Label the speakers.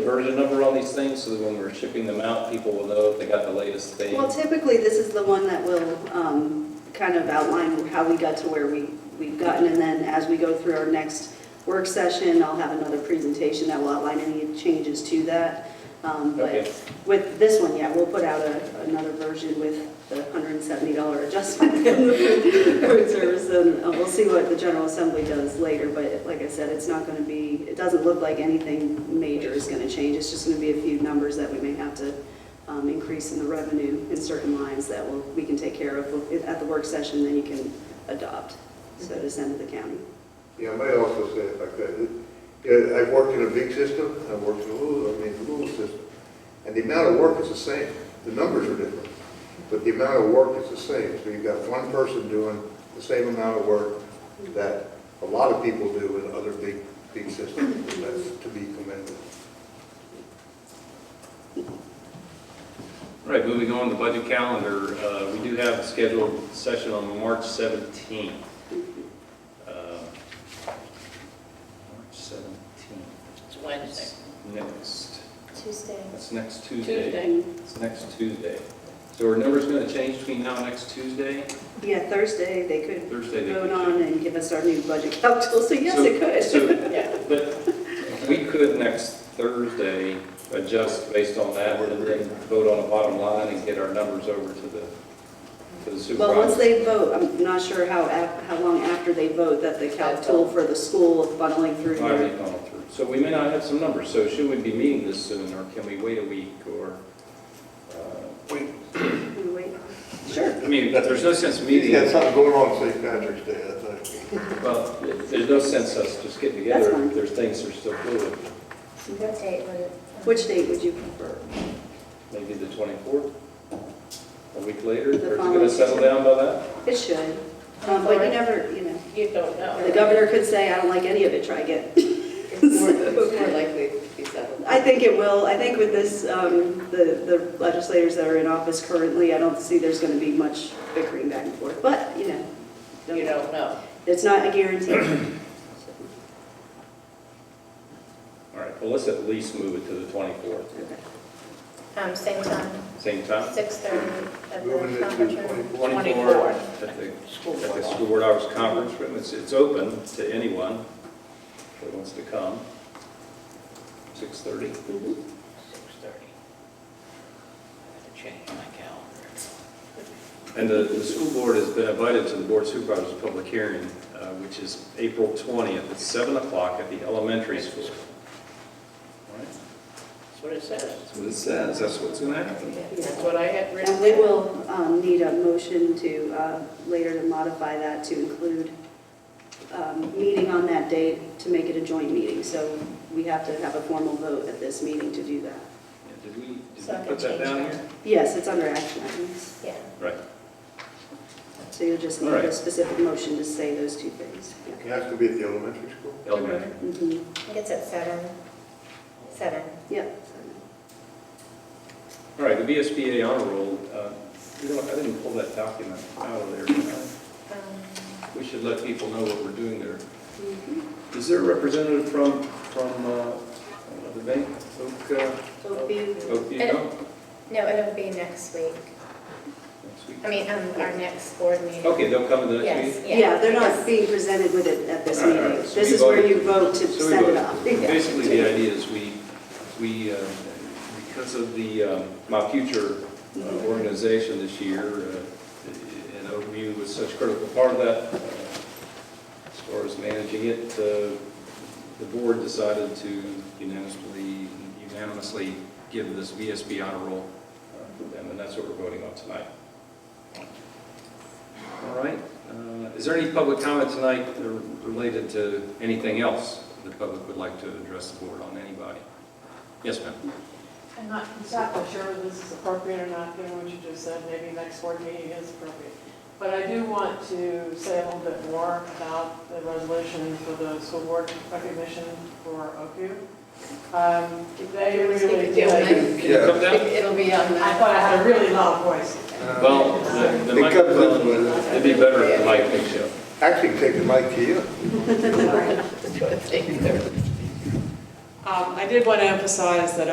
Speaker 1: version number on these things, so that when we're shipping them out, people will know if they got the latest thing?
Speaker 2: Well, typically, this is the one that will um, kind of outline how we got to where we, we've gotten. And then as we go through our next work session, I'll have another presentation that will outline any changes to that. Um,
Speaker 1: Okay.
Speaker 2: But with this one, yeah, we'll put out a- another version with the $170 adjustment in the food- food service. And uh, we'll see what the General Assembly does later. But like I said, it's not going to be, it doesn't look like anything major is going to change. It's just going to be a few numbers that we may have to um, increase in the revenue in certain lines that will, we can take care of at the work session, then you can adopt, so to send to the county.
Speaker 3: Yeah, I might also say if I could, it- yeah, I've worked eh, in a big system, and I've worked in a little, I mean, a little system, and the amount of work is the same. The numbers are different, but the amount of work is the same. So you've got one person doing the same amount of work that a lot of people do in other big, big systems, and that's to be commended.
Speaker 1: All right, moving on to the budget calendar, uh, we do have a scheduled session on March 17th. Uh, March 17th,
Speaker 4: It's Wednesday.
Speaker 1: That's next, that's
Speaker 5: Tuesday.
Speaker 1: next Tuesday.
Speaker 4: Tuesday.
Speaker 1: It's next Tuesday. So are numbers going to change between now and next Tuesday?
Speaker 2: Yeah, Thursday, they could
Speaker 1: Thursday? they
Speaker 2: vote
Speaker 1: could-
Speaker 2: on and give us our new budget calcul, so yes, it
Speaker 1: So-
Speaker 2: could.
Speaker 4: Yeah.
Speaker 1: so- But we could next Thursday adjust based on that and then vote on the bottom line and get our numbers over to the to the
Speaker 2: Well, once
Speaker 1: supervisor.
Speaker 2: they vote, I'm not sure how, af- how long after they vote that the calcul for the school funneling through
Speaker 1: All
Speaker 2: here.
Speaker 1: right, going through. So we may not have some numbers, so should we be meeting this soon or can we wait a week or? uh,
Speaker 3: We,
Speaker 2: Can we wait? Sure.
Speaker 1: I mean, there's no sense
Speaker 3: he's
Speaker 1: meeting,
Speaker 3: got something going on St. Patrick's Day, I think.
Speaker 1: well, there's no sense us just getting
Speaker 2: That's
Speaker 1: together.
Speaker 2: fine.
Speaker 1: There's things that are still fluid.
Speaker 5: So what date would it?
Speaker 2: Which date would you prefer?
Speaker 1: maybe the 24th, a week later, or is
Speaker 2: The
Speaker 1: it going
Speaker 2: following
Speaker 1: to settle down by that?
Speaker 2: It should, Um, but you never, you know,
Speaker 4: You don't know.
Speaker 2: the governor could say, I don't like any of it, try again.
Speaker 6: It's more, it's more likely to be settled.
Speaker 2: I think it will. I think with this, um, the the legislators that are in office currently, I don't see there's going to be much bickering back and forth, but, you know,
Speaker 4: You don't know.
Speaker 2: it's not a guarantee.
Speaker 1: All right, well, let's at least move it to the 24th,
Speaker 2: Okay.
Speaker 5: Um, same time,
Speaker 1: same time?
Speaker 5: six thirty at
Speaker 3: Moving
Speaker 5: the
Speaker 3: it to
Speaker 5: conference room.
Speaker 3: 24.
Speaker 4: 24.
Speaker 1: At the, at the School Board Hours Conference Room, it's, it's open to anyone that wants to come. 6:30?
Speaker 2: Mhm.
Speaker 4: 6:30. I have to change my calendar.
Speaker 1: And the, the school board has been invited to the Board of Supervisors' public hearing, uh, which is April 20th at 7 o'clock at the elementary school. All right,
Speaker 4: That's what it says.
Speaker 1: That's what it says, that's what's going to happen.
Speaker 4: That's what I had written.
Speaker 2: And we will um, need a motion to, uh, later to modify that to include um, meeting on that date to make it a joint meeting. So we have to have a formal vote at this meeting to do that.
Speaker 1: Yeah, Did we, did we
Speaker 5: So I can
Speaker 1: put that
Speaker 5: change
Speaker 1: down
Speaker 5: that.
Speaker 1: here?
Speaker 2: Yes, it's under action items.
Speaker 5: Yeah.
Speaker 1: Right.
Speaker 2: So you'll just need
Speaker 1: All right.
Speaker 2: a specific motion to say those two things. Yeah.
Speaker 3: It has to be at the elementary school.
Speaker 1: Elementary.
Speaker 2: Mhm.
Speaker 5: I think it's at seven, seven.
Speaker 2: Yep.
Speaker 1: All right, the VSBA honor roll, uh, you know, what, I didn't pull that document out of there. Uh,
Speaker 5: Um,
Speaker 1: We should let people know what we're doing there. Is there a representative from, from uh, I don't know, the bank, Oak, uh, Oakview,
Speaker 5: And-
Speaker 1: no?
Speaker 5: No, it'll be next week.
Speaker 1: Next week.
Speaker 5: I mean, um, our next board meeting.
Speaker 1: Okay, they'll come in the next
Speaker 5: Yes,
Speaker 1: meeting?
Speaker 5: yeah.
Speaker 2: Yeah, they're not
Speaker 5: Yes.
Speaker 2: being presented with it at this
Speaker 1: All right,
Speaker 2: meeting.
Speaker 1: all right. So
Speaker 2: This
Speaker 1: we
Speaker 2: is where
Speaker 1: voted.
Speaker 2: you vote
Speaker 1: So
Speaker 2: to
Speaker 1: we
Speaker 2: send it
Speaker 1: voted.
Speaker 2: off. Yeah.
Speaker 1: Basically, the idea is we, we, uh, because of the, um, my future uh, organization this year, uh, and OU was such a critical part of that, uh, as far as managing it, uh, the board decided to unanimously, unanimously give this VSB honor roll, uh, to them, and that's what we're voting on tonight. All right, uh, is there any public comment tonight that are related to anything else the public would like to address the board on, anybody? Yes, ma'am?
Speaker 6: I'm not exactly sure whether this is appropriate or not, given what you just said, maybe next board meeting is appropriate. But I do want to say a little bit more about the resolution for the school board recognition for OQ. Um, They
Speaker 4: Everyone's gonna
Speaker 6: really
Speaker 4: do
Speaker 6: did.
Speaker 4: it.
Speaker 1: Can you come down?
Speaker 4: It'll be on
Speaker 6: I thought I had a really loud voice.
Speaker 1: Well, the- the
Speaker 3: It comes up
Speaker 1: microphone,
Speaker 3: with it.
Speaker 1: it'd be better if the mic picks you up.
Speaker 3: Actually, take the mic to you.
Speaker 6: Um, Um, I did want to emphasize that